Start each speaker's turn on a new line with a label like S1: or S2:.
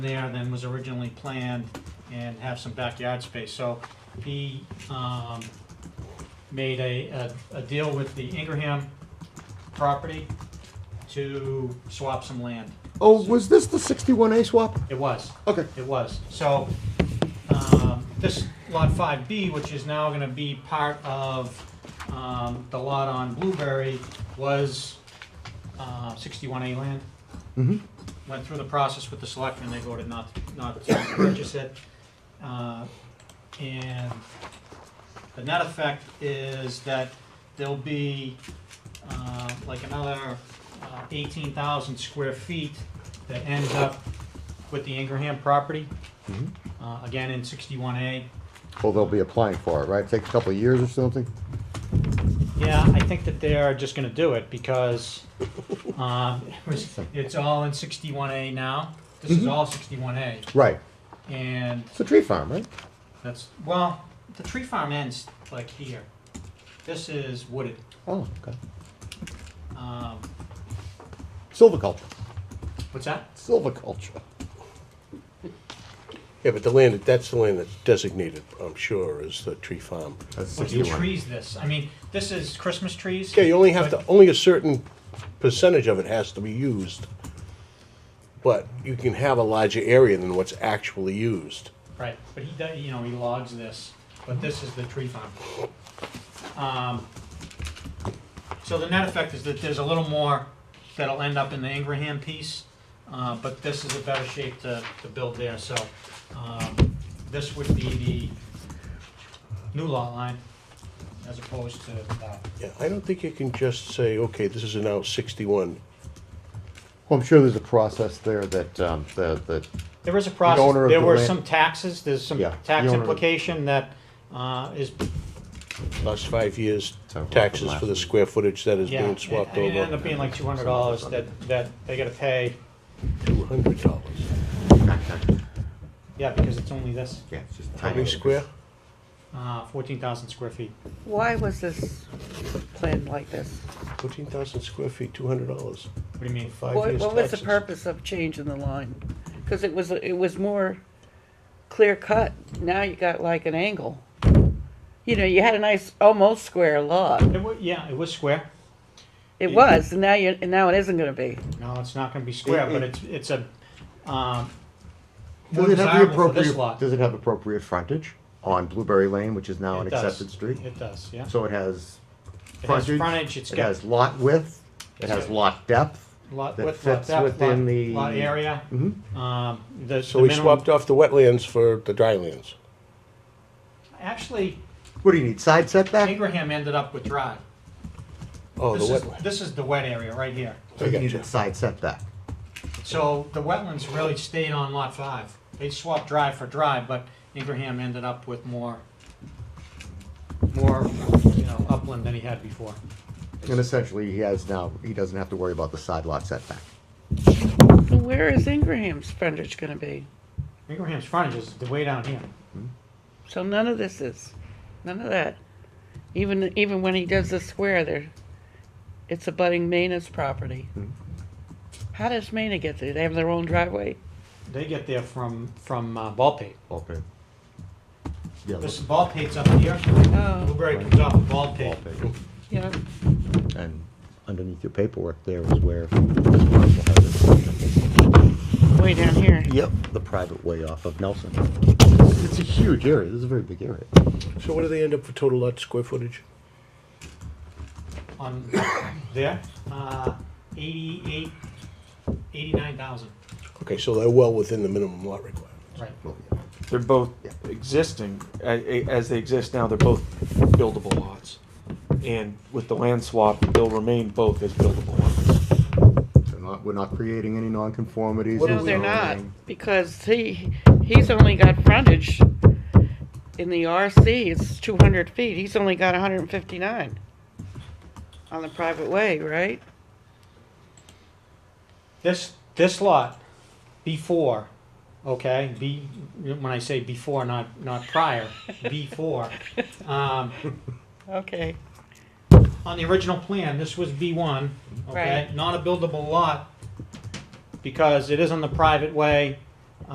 S1: there than was originally planned and have some backyard space. So he um, made a, a- a deal with the Ingraham property to swap some land.
S2: Oh, was this the sixty-one A swap?
S1: It was,
S2: Okay,
S1: it was. So um, this Lot 5B, which is now going to be part of um, the lot on Blueberry, was uh, 61A land.
S2: mm-hmm,
S1: went through the process with the selectmen, they voted not, not to purchase it. Uh, And the net effect is that there'll be uh, like another uh, eighteen thousand square feet that ends up with the Ingraham property,
S2: Mhm.
S1: uh, again in sixty-one A.
S2: well, they'll be applying for it, right? Take a couple of years or something?
S1: Yeah, I think that they're just gonna do it because um, it was- it's all in sixty-one A now. This is all sixty-one A.
S2: Right,
S1: And
S2: it's a tree farm, right?
S1: That's, well, the tree farm ends like here. This is wooded.
S2: Oh, okay.
S1: Um,
S2: Silviculture,
S1: what's that?
S2: silviculture.
S3: Yeah, but the land, that's the land that's designated, I'm sure, is the tree farm.
S2: That's
S1: What do trees this? I mean, this is Christmas trees.
S3: Yeah, you only have to, only a certain percentage of it has to be used. But you can have a larger area than what's actually used.
S1: Right, but he, does- you know, he logs this, but this is the tree farm. Um, So the net effect is that there's a little more that'll end up in the Ingraham piece, uh, but this is a better shape to, to build there, so, um, this would be the new lot line as opposed to, uh,
S3: Yeah, I don't think you can just say, okay, this is now sixty-one.
S2: Well, I'm sure there's a process there that, um, the, the,
S1: There is a
S2: owner
S1: process,
S2: of
S1: there
S2: the
S1: were
S2: land-
S1: some taxes, there's some
S2: Yeah, the
S1: tax
S2: owner of-
S1: implication that uh, is,
S3: Last five years,
S2: Sorry, what's the
S3: taxes for the
S2: last?
S3: square footage that is
S1: yeah,
S3: being
S1: it
S3: swapped
S1: it ended up
S3: over,
S1: being like two hundred dollars that, that they gotta pay,
S3: two hundred dollars.
S1: yeah, because it's only this, Uh,
S2: yeah, it's just
S3: How
S2: tiny.
S3: many square?
S1: fourteen thousand square feet.
S4: Why was this planned like this?
S3: Fourteen thousand square feet, two hundred dollars,
S1: What do you mean?
S3: five
S4: What,
S3: years taxes.
S4: what was the purpose of changing the line? Because it was, it was more clear cut. Now you got like an angle. You know, you had a nice, almost square lot.
S1: It wa, yeah, it was square,
S4: It was, and now you, and now it isn't gonna be.
S1: no, it's not gonna be square, but it's, it's a, um, more
S2: Does it have the
S1: desirable for this
S2: appropriate,
S1: lot.
S2: does it have appropriate frontage on Blueberry Lane, which is now an
S1: It does.
S2: accepted street?
S1: It does, yeah,
S2: So it has
S1: it has
S2: frontage,
S1: frontage, it's
S2: it
S1: got
S2: has lot width, it
S1: It's
S2: has
S1: got-
S2: lot depth.
S1: lot
S2: that
S1: width, lot
S2: fits
S1: depth,
S2: within
S1: lot,
S2: the-
S1: lot area,
S2: Mhm.
S1: um, the,
S3: So
S1: the
S3: we
S1: minimum-
S3: swapped off the wetlands for the drylands.
S1: Actually,
S2: What do you need, side setback?
S1: Ingraham ended up with dry.
S3: Oh, the
S1: This is,
S3: wetland.
S1: this is the wet area right here.
S2: So you
S3: I
S2: need
S3: gotcha.
S2: a side setback.
S1: So the wetlands really stayed on lot five. They swapped dry for dry, but Ingraham ended up with more, more, you know, upland than he had before.
S2: And essentially, he has now, he doesn't have to worry about the side lot setback.
S4: So Where is Ingram's frontage gonna be?
S1: Ingraham's frontage is the way down here.
S4: So none of this is, none of that. Even, even when he does the square there, it's abutting Mina's property.
S3: Hmm.
S2: Mhm.
S4: How does Mina get there? They have their own driveway?
S1: They get there from, from uh, Ballpate.
S2: Okay. Yeah,
S1: This
S2: look,
S1: Ballpate's up here.
S4: Oh,
S1: Blueberry comes off of Ballpate.
S2: wallpaper.
S4: yeah.
S2: And underneath your paperwork there is where this parcel has it.
S4: Way down here.
S2: Yep, the private way off of Nelson. It's a huge area, this is a very big area.
S3: So what do they end up for total lot square footage?
S1: on there, uh, eighty-eight, eighty-nine thousand.
S3: Okay, so they're well within the minimum lot requirement.
S1: Right.
S2: Well,
S5: They're both
S2: Yeah.
S5: existing, a- a- as they exist now, they're both buildable lots. And with the land swap, they'll remain both as buildable lots.
S2: They're not, we're not creating any nonconformities.
S3: What
S4: No,
S3: are
S2: or
S4: they're
S3: we
S4: not,
S2: zoning.
S4: because he, he's only got frontage in the RC, it's two hundred feet, he's only got hundred and fifty-nine on the private way, right?
S1: This, this lot, before, okay, be, when I say before, not, not prior, before. Um,
S4: Okay,
S1: on the original plan, this was B one, okay?
S4: Right.
S1: Not a buildable lot, because it is on the private way,